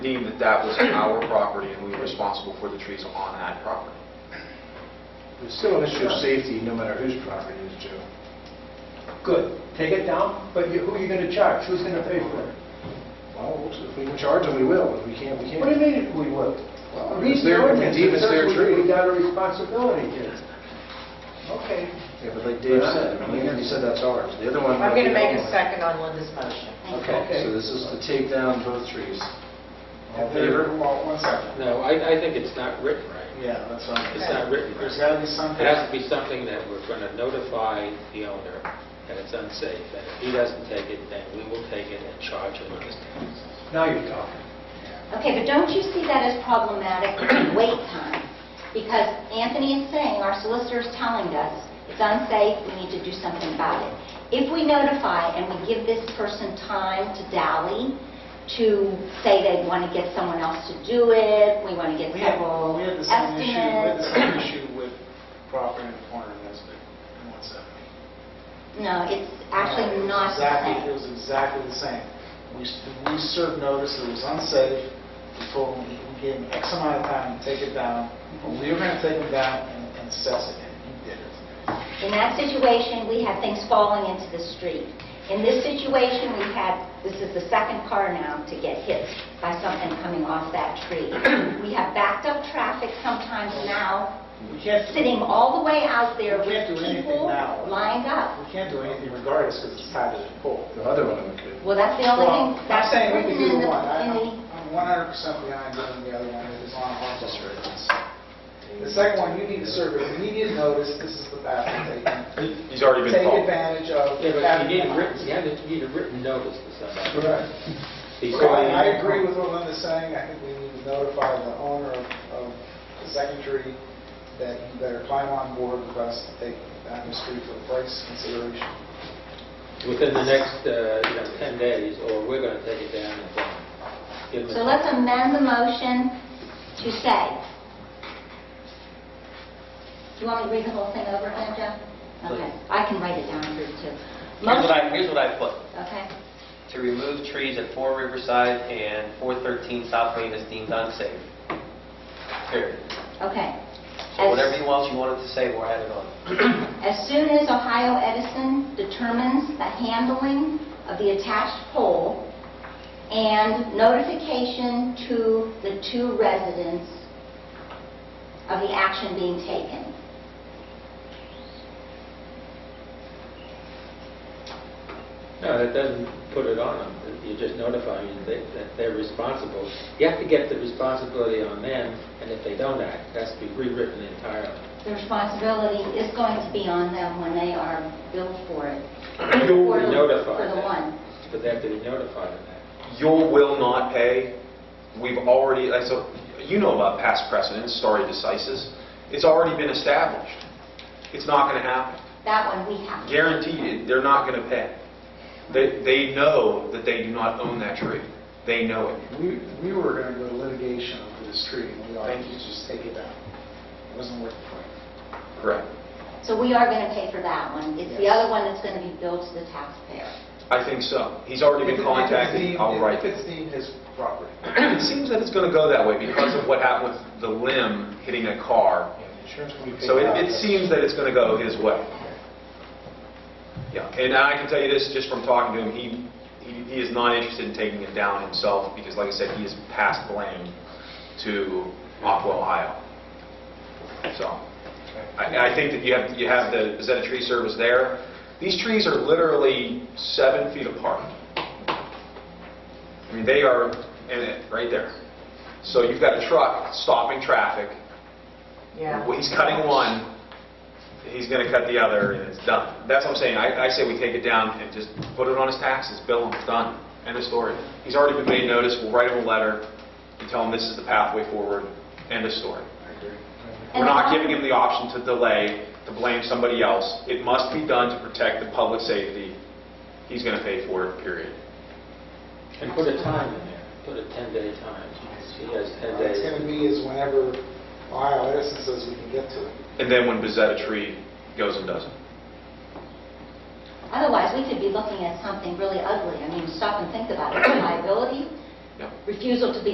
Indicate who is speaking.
Speaker 1: deemed that that was our property and we were responsible for the trees on that property.
Speaker 2: There's still an issue of safety, no matter whose property it is, Joe.
Speaker 3: Good, take it down, but you- who are you going to charge? Who's going to pay for it?
Speaker 2: Well, if we can charge them, we will, if we can't, we can't.
Speaker 3: What do you mean if we will?
Speaker 2: Well,
Speaker 3: Read
Speaker 2: it's
Speaker 3: the
Speaker 2: their-
Speaker 3: ordinance,
Speaker 2: indeed, it's their
Speaker 3: It says we-
Speaker 2: tree.
Speaker 3: We got a responsibility here. Okay.
Speaker 2: Yeah, but like Dave said, I mean, he said that's ours. The other one...
Speaker 4: I'm going to make a second on Linda's motion.
Speaker 2: Okay, so this is to take down both trees. All in
Speaker 5: There-
Speaker 2: favor?
Speaker 5: Well, one second.
Speaker 6: No, I, I think it's not written right.
Speaker 5: Yeah, that's what I'm...
Speaker 6: It's not written
Speaker 5: There's
Speaker 6: right.
Speaker 5: got to be something...
Speaker 6: It has to be something that we're going to notify the owner that it's unsafe, and if he doesn't take it, then we will take it and charge him with his taxes.
Speaker 3: Now you're talking.
Speaker 7: Okay, but don't you see that as problematic, wait time? Because Anthony is saying, our solicitor is telling us, it's unsafe, we need to do something about it. If we notify and we give this person time to dally, to say they want to get someone else to do it, we want to get
Speaker 5: We had-
Speaker 7: several
Speaker 5: We had the same issue, we had the
Speaker 7: estimates.
Speaker 5: same issue with property in the corner of Nesbit and 170.
Speaker 7: No, it's actually
Speaker 5: No,
Speaker 7: not
Speaker 5: it was Uh, exactly- It
Speaker 7: the same.
Speaker 5: was exactly the same. We s- we served notice, that it was unsafe, we told them, we gave them X amount of time to take it down, and we were going to take them down and and assess it, and he did it.
Speaker 7: In that situation, we had things falling into the street. In this situation, we had, this is the second car now to get hit by something coming off that tree. We have backed up traffic sometimes now,
Speaker 5: We can't,
Speaker 7: sitting all the way out there
Speaker 5: We can't
Speaker 7: with
Speaker 5: do anything
Speaker 7: people
Speaker 5: now.
Speaker 7: lined up.
Speaker 5: we can't do anything regardless because it's tied to the pole.
Speaker 2: The other one we could.
Speaker 7: Well, that's the only
Speaker 5: Well,
Speaker 7: thing,
Speaker 5: I'm
Speaker 7: that's
Speaker 5: saying we can
Speaker 7: written in
Speaker 5: do
Speaker 7: the,
Speaker 5: one. I-
Speaker 7: in the...
Speaker 5: I'm I'm 100% behind doing the other one, it's on Hartwell
Speaker 2: That's right.
Speaker 5: The second one, you need to serve immediate notice, this is the bathroom taken.
Speaker 1: He's already been
Speaker 5: Take
Speaker 1: called.
Speaker 5: advantage of.
Speaker 6: Yeah, but
Speaker 5: having
Speaker 6: you need a
Speaker 5: them.
Speaker 6: written, you have to- you need a written notice to somebody.
Speaker 5: Correct. So
Speaker 6: Before
Speaker 5: I I
Speaker 6: they-
Speaker 5: agree with what Linda's saying, I think we need to notify the owner of of the second tree that you better climb on board with us to take down the street for price consideration.
Speaker 6: Within the next, uh, you know, 10 days, or we're going to take it down and then give them...
Speaker 7: So let's amend the motion to say, do you want me to read the whole thing over again, Jeff? Okay, I can write it down for you too.
Speaker 8: Here's what I, here's what I put.
Speaker 7: Okay,
Speaker 8: To remove trees at 4 Riverside and 413 South Main is deemed unsafe. Period.
Speaker 7: okay.
Speaker 8: So whatever you else you wanted to say, we'll add it on.
Speaker 7: As soon as Ohio Edison determines the handling of the attached pole and notification to the two residents of the action being taken.
Speaker 6: No, that doesn't put it on them. You're just notifying them that that they're responsible. You have to get the responsibility on them, and if they don't act, it has to be rewritten entirely.
Speaker 7: The responsibility is going to be on them when they are billed for it.
Speaker 6: You will
Speaker 7: For
Speaker 6: be
Speaker 7: the-
Speaker 6: notified.
Speaker 7: For the
Speaker 6: then,
Speaker 7: one.
Speaker 6: But they have to be notified of that.
Speaker 1: you will not pay. We've already, like, so, you know about past precedents, stare decisis. It's already been established. It's not going to happen.
Speaker 7: That one we have.
Speaker 1: Guaranteed, they're not going to pay. They, they know that they do not own that tree. They know it.
Speaker 5: We we were going to go to litigation over this tree, and we all had to just take it down. It wasn't worth it.
Speaker 1: Correct.
Speaker 7: So we are going to pay for that one. It's the
Speaker 5: Yes.
Speaker 7: other one that's going to be billed to the taxpayer.
Speaker 1: I think so. He's already been contacted. I'll write.
Speaker 5: If it's deemed his property.
Speaker 1: It seems that it's going to go that way because of what happened with the limb hitting a car.
Speaker 2: Yeah, the insurance company paid
Speaker 1: So it,
Speaker 2: out.
Speaker 1: it seems that it's going to go his way. Yeah, and I can tell you this, just from talking to him, he, he he is not interested in taking it down himself, because like I said, he is past blame to Aqua, Ohio. So, I, I think that you have, you have the Bezetta Tree Service there. These trees are literally seven feet apart. I mean, they are in it, right there. So you've got a truck stopping traffic,
Speaker 4: Yeah.
Speaker 1: well, He's cutting one, he's going to cut the other, and it's done. That's what I'm saying, I I say we take it down and just put it on his taxes, bill him, done, end of story. He's already been made notice, we'll write him a letter, and tell him this is the pathway forward, end of story. We're
Speaker 7: And the
Speaker 1: not
Speaker 7: con-
Speaker 1: giving him the option to delay, to blame somebody else. It must be done to protect the public safety. He's going to pay for it, period.
Speaker 6: And put a time in there, put a 10-day time. He has 10
Speaker 5: It's going
Speaker 6: days.
Speaker 5: to be is whenever Ohio Edison says we can get to it.
Speaker 1: And then when Bezetta Tree goes and does it.
Speaker 7: Otherwise, we could be looking at something really ugly. I mean, stop and think about it. Liability,
Speaker 1: Yeah.
Speaker 7: refusal to be